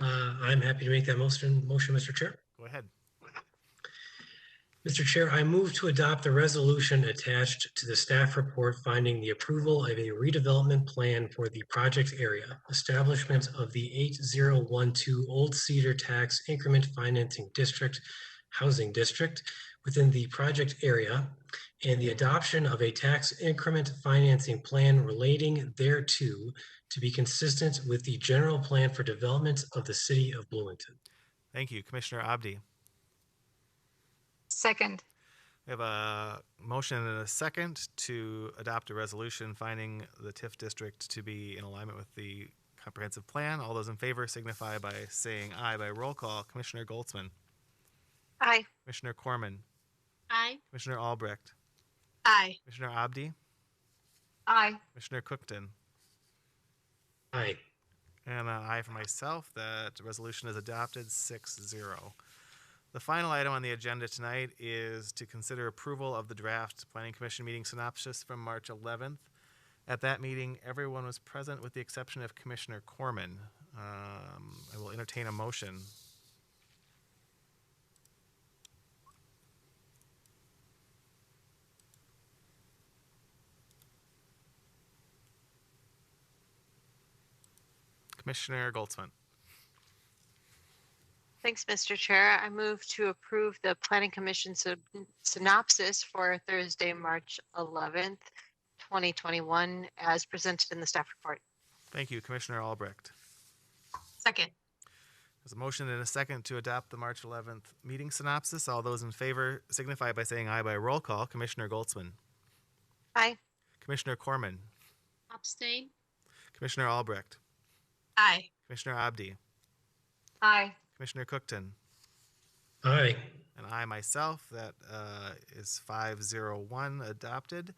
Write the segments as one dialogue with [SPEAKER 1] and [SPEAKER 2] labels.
[SPEAKER 1] Uh, I'm happy to make that motion, motion, Mr. Chair.
[SPEAKER 2] Go ahead.
[SPEAKER 1] Mr. Chair, I move to adopt the resolution attached to the staff report finding the approval of a redevelopment plan for the project area, establishment of the 8012 Old Cedar Tax Increment Financing District Housing District within the project area, and the adoption of a tax increment financing plan relating thereto to be consistent with the general plan for development of the city of Bloomington.
[SPEAKER 2] Thank you, Commissioner Abdi.
[SPEAKER 3] Second,
[SPEAKER 2] We have a motion and a second to adopt a resolution finding the TIF district to be in alignment with the comprehensive plan. All those in favor signify by saying aye by roll call. Commissioner Goldsman,
[SPEAKER 3] aye.
[SPEAKER 2] Commissioner Corman,
[SPEAKER 3] Aye.
[SPEAKER 2] Commissioner Albrecht,
[SPEAKER 3] Aye.
[SPEAKER 2] Commissioner Abdi,
[SPEAKER 3] Aye.
[SPEAKER 2] Commissioner Cookton,
[SPEAKER 1] Aye.
[SPEAKER 2] And an aye for myself. That resolution is adopted 6 0. The final item on the agenda tonight is to consider approval of the draft Planning Commission meeting synopsis from March 11th. At that meeting, everyone was present with the exception of Commissioner Corman. Um, I will entertain a motion. Commissioner Goldsman.
[SPEAKER 4] Thanks, Mr. Chair. I move to approve the Planning Commission syn- synopsis for Thursday, March 11th, 2021, as presented in the staff report.
[SPEAKER 2] Thank you, Commissioner Albrecht.
[SPEAKER 3] Second,
[SPEAKER 2] There's a motion and a second to adopt the March 11th meeting synopsis. All those in favor signify by saying aye by roll call. Commissioner Goldsman.
[SPEAKER 4] Aye.
[SPEAKER 2] Commissioner Corman.
[SPEAKER 3] abstain.
[SPEAKER 2] Commissioner Albrecht.
[SPEAKER 3] Aye.
[SPEAKER 2] Commissioner Abdi.
[SPEAKER 4] Aye.
[SPEAKER 2] Commissioner Cookton.
[SPEAKER 1] Aye.
[SPEAKER 2] And I myself, that uh, is 501 adopted.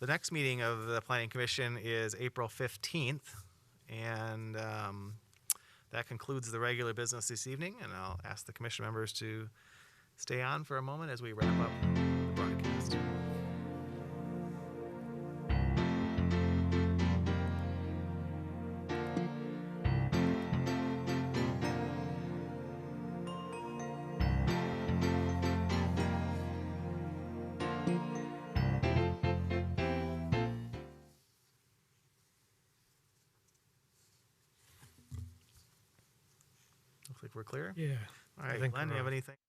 [SPEAKER 2] The next meeting of the Planning Commission is April 15th. And um, that concludes the regular business this evening. And I'll ask the commission members to stay on for a moment as we wrap up the broadcast. Looks like we're clear.
[SPEAKER 5] Yeah.
[SPEAKER 2] All right,
[SPEAKER 5] think
[SPEAKER 2] Glenn, do you
[SPEAKER 5] we're
[SPEAKER 2] have
[SPEAKER 5] on.
[SPEAKER 2] anything?